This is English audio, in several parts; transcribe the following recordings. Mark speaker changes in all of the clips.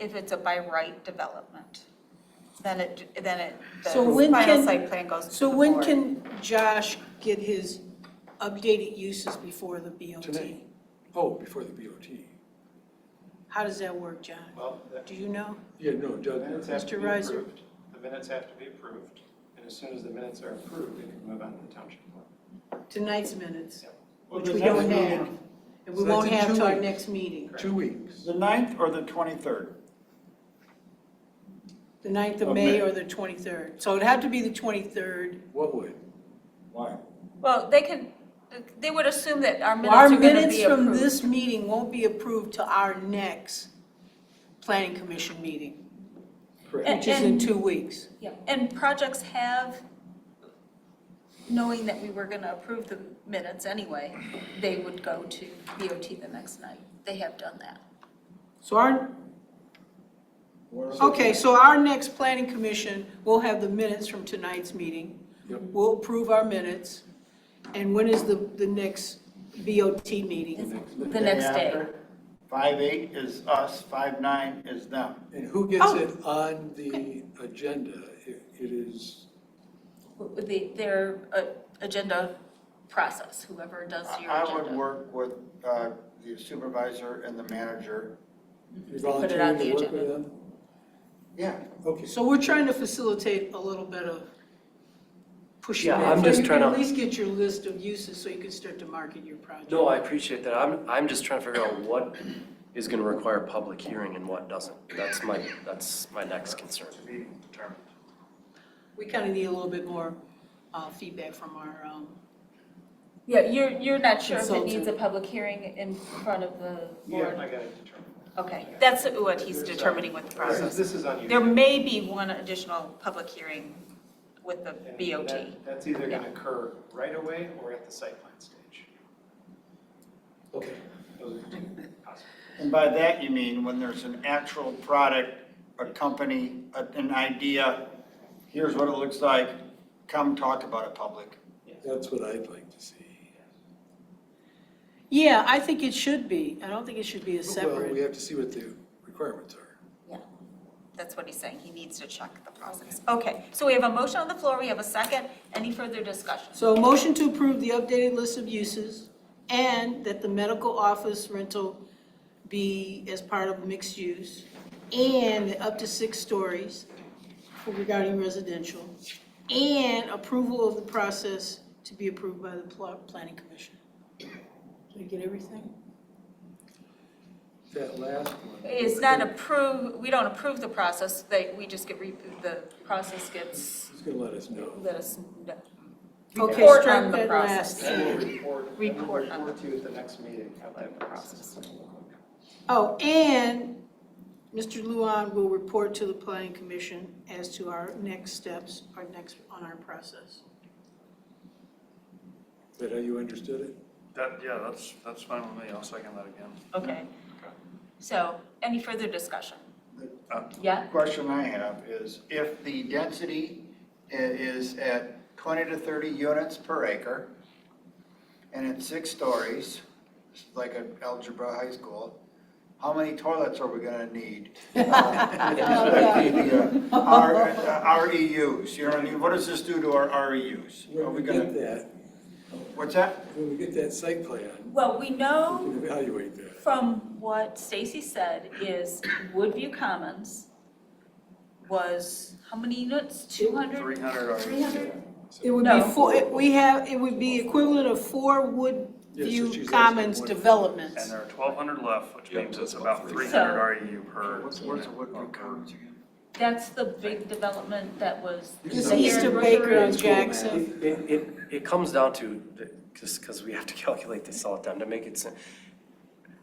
Speaker 1: if it's a by right development, then it, then it, the
Speaker 2: So when
Speaker 1: final
Speaker 2: can-
Speaker 1: site plan goes to the board.
Speaker 2: So when can Josh get his updated uses before the BOT?
Speaker 3: Tonight. Oh, before the BOT.
Speaker 2: How does that work, John?
Speaker 4: Well, the
Speaker 2: Do you know?
Speaker 3: Yeah, no, it
Speaker 4: the minutes
Speaker 3: doesn't.
Speaker 4: have to
Speaker 2: Mr.
Speaker 4: be
Speaker 2: Reiser.
Speaker 4: approved. The minutes have to be approved, and as soon as the minutes are approved, it can move on to the township board.
Speaker 2: Tonight's minutes,
Speaker 4: Yeah.
Speaker 5: Well,
Speaker 2: which
Speaker 5: the
Speaker 2: we
Speaker 5: next
Speaker 2: don't
Speaker 5: meeting-
Speaker 2: have. And we
Speaker 3: So that's
Speaker 2: won't
Speaker 3: in
Speaker 2: have
Speaker 3: two
Speaker 2: till our
Speaker 3: weeks.
Speaker 2: next meeting,
Speaker 3: Two weeks.
Speaker 5: The ninth or the twenty-third?
Speaker 2: the 9th of
Speaker 5: Of
Speaker 2: May
Speaker 5: May.
Speaker 2: or the 23rd. So it'd have to be the 23rd.
Speaker 3: What would?
Speaker 5: Why?
Speaker 1: Well, they can, they would assume that our minutes
Speaker 2: Our
Speaker 1: are gonna
Speaker 2: minutes
Speaker 1: be
Speaker 2: from
Speaker 1: approved.
Speaker 2: this meeting won't be approved till our next planning commission meeting,
Speaker 3: Correct.
Speaker 1: And-
Speaker 2: which is in two weeks.
Speaker 1: Yeah, And projects have, knowing that we were gonna approve the minutes anyway, they would go to BOT the next night. They have done that.
Speaker 2: So our, okay, so our next planning commission, will have the minutes from tonight's meeting.
Speaker 3: Yep.
Speaker 2: We'll approve our minutes. And when is the, the next BOT meeting?
Speaker 1: The next day.
Speaker 5: Five eight is us, five nine is them.
Speaker 3: And who gets
Speaker 2: Oh.
Speaker 3: it on the agenda? It it is,
Speaker 1: with the, their uh, agenda process, whoever does
Speaker 5: I
Speaker 1: your
Speaker 5: I
Speaker 1: agenda.
Speaker 5: would work with uh, the supervisor and the manager.
Speaker 3: you're
Speaker 1: Put it on
Speaker 3: volunteering to
Speaker 1: the
Speaker 3: work with
Speaker 1: agenda.
Speaker 3: them?
Speaker 5: Yeah.
Speaker 3: Okay.
Speaker 2: So we're trying to facilitate a little bit of pushing
Speaker 6: Yeah,
Speaker 2: that.
Speaker 6: I'm
Speaker 2: So
Speaker 6: just
Speaker 2: you
Speaker 6: trying
Speaker 2: can
Speaker 6: to-
Speaker 2: At least get your list of uses so you can start to market your project.
Speaker 6: No, I appreciate that. I'm, I'm just trying to figure out what is gonna require public hearing and what doesn't. That's my, that's my next concern.
Speaker 5: be determined.
Speaker 2: We kind of need a little bit more uh, feedback from our, um,
Speaker 1: Yeah, you're, you're not sure if it needs a
Speaker 2: Consultant.
Speaker 1: public hearing in front of the
Speaker 4: Yeah,
Speaker 1: board?
Speaker 4: I got it determined.
Speaker 1: Okay, that's what he's determining with the
Speaker 4: This is,
Speaker 1: process.
Speaker 4: this is
Speaker 1: There
Speaker 4: unusual.
Speaker 1: may be one additional public hearing with the
Speaker 4: And
Speaker 1: BOT.
Speaker 4: that- That's either going to occur right away or at the site plan stage.
Speaker 3: Okay.
Speaker 4: Those are two possible.
Speaker 5: And by that, you mean when there's an actual product, a company, a- an idea, here's what it looks like, come talk about it public.
Speaker 3: That's what I'd like to see.
Speaker 2: yeah, I think it should be. I don't think it should be a
Speaker 3: Well, we
Speaker 2: separate.
Speaker 3: have to see what the requirements are.
Speaker 1: That's what he's saying, he needs to check the process. Okay, so we have a motion on the floor, we have a second, any further discussion?
Speaker 2: So a motion to approve the updated list of uses and that the medical office rental be as part of mixed use and up to six stories for regarding residential and approval of the process to be approved by the pl- planning commission. Did I get everything?
Speaker 3: That last one.
Speaker 1: It's not approve, we don't approve the process, they, we just get, re- the process gets,
Speaker 3: Who's going to let us know?
Speaker 1: let us know.
Speaker 2: Okay,
Speaker 1: Report on
Speaker 2: strike
Speaker 1: the
Speaker 2: that
Speaker 1: process.
Speaker 2: last.
Speaker 4: Then we'll report, then we'll
Speaker 1: Report on
Speaker 4: report to you at the next meeting how that process.
Speaker 2: Oh, and Mr. Luan will report to the planning commission as to our next steps, our next, on our process.
Speaker 3: Is that how you understood it?
Speaker 7: That, yeah, that's, that's fine with me, I'll second that again.
Speaker 1: Okay. So, any further discussion?
Speaker 7: Uh,
Speaker 1: Yeah?
Speaker 5: Question I have is if the density i- is at 20 to 30 units per acre and it's six stories, it's like an algebra high school, how many toilets are we going to need? Uh, with respect to the, uh, Our uh, REUs, you know what I mean? What does this do to our REUs? Are
Speaker 3: When
Speaker 5: we
Speaker 3: we
Speaker 5: going
Speaker 3: get
Speaker 5: to,
Speaker 3: that,
Speaker 5: what's that?
Speaker 3: when we get that site plan,
Speaker 1: Well, we
Speaker 3: we
Speaker 1: know
Speaker 3: can evaluate that.
Speaker 1: from what Stacy said is Woodview Commons was, how many units? 200?
Speaker 7: 300 are-
Speaker 5: E
Speaker 1: 300?
Speaker 2: It would be
Speaker 1: No.
Speaker 2: four, it- we have, it would be equivalent of four
Speaker 3: Yes, so she's
Speaker 2: Woodview
Speaker 3: asking
Speaker 2: Commons
Speaker 3: what-
Speaker 7: And
Speaker 2: developments.
Speaker 7: there are twelve hundred left, which
Speaker 3: Yeah,
Speaker 7: means it's
Speaker 3: that's
Speaker 7: about
Speaker 3: about
Speaker 7: three
Speaker 3: three.
Speaker 7: hundred REU per.
Speaker 5: What's, what's the
Speaker 7: unit or
Speaker 5: Woodview
Speaker 7: per-
Speaker 5: Commons again?
Speaker 1: That's the big development that was.
Speaker 2: It's
Speaker 3: So-
Speaker 2: east of Baker on
Speaker 3: It's cool, man.
Speaker 2: Jackson.
Speaker 6: It, it- it, it comes down to, just because we have to calculate this all the time to make it, sen-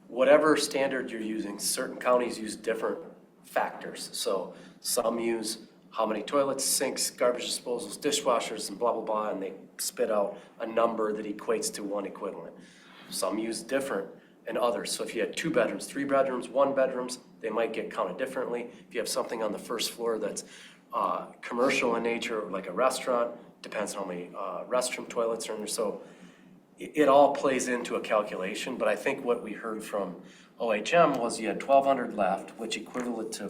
Speaker 6: whatever standard you're using, certain counties use different factors. So some use how many toilets, sinks, garbage disposals, dishwashers, and blah, blah, blah, and they spit out a number that equates to one equivalent. Some use different and others. So if you had two bedrooms, three bedrooms, one bedrooms, they might get counted differently. If you have something on the first floor that's uh, commercial in nature, like a restaurant, depends on how many uh, restroom toilets are in there. So it, it all plays into a calculation, but I think what we heard from OHM was you had twelve hundred left, which equivalent to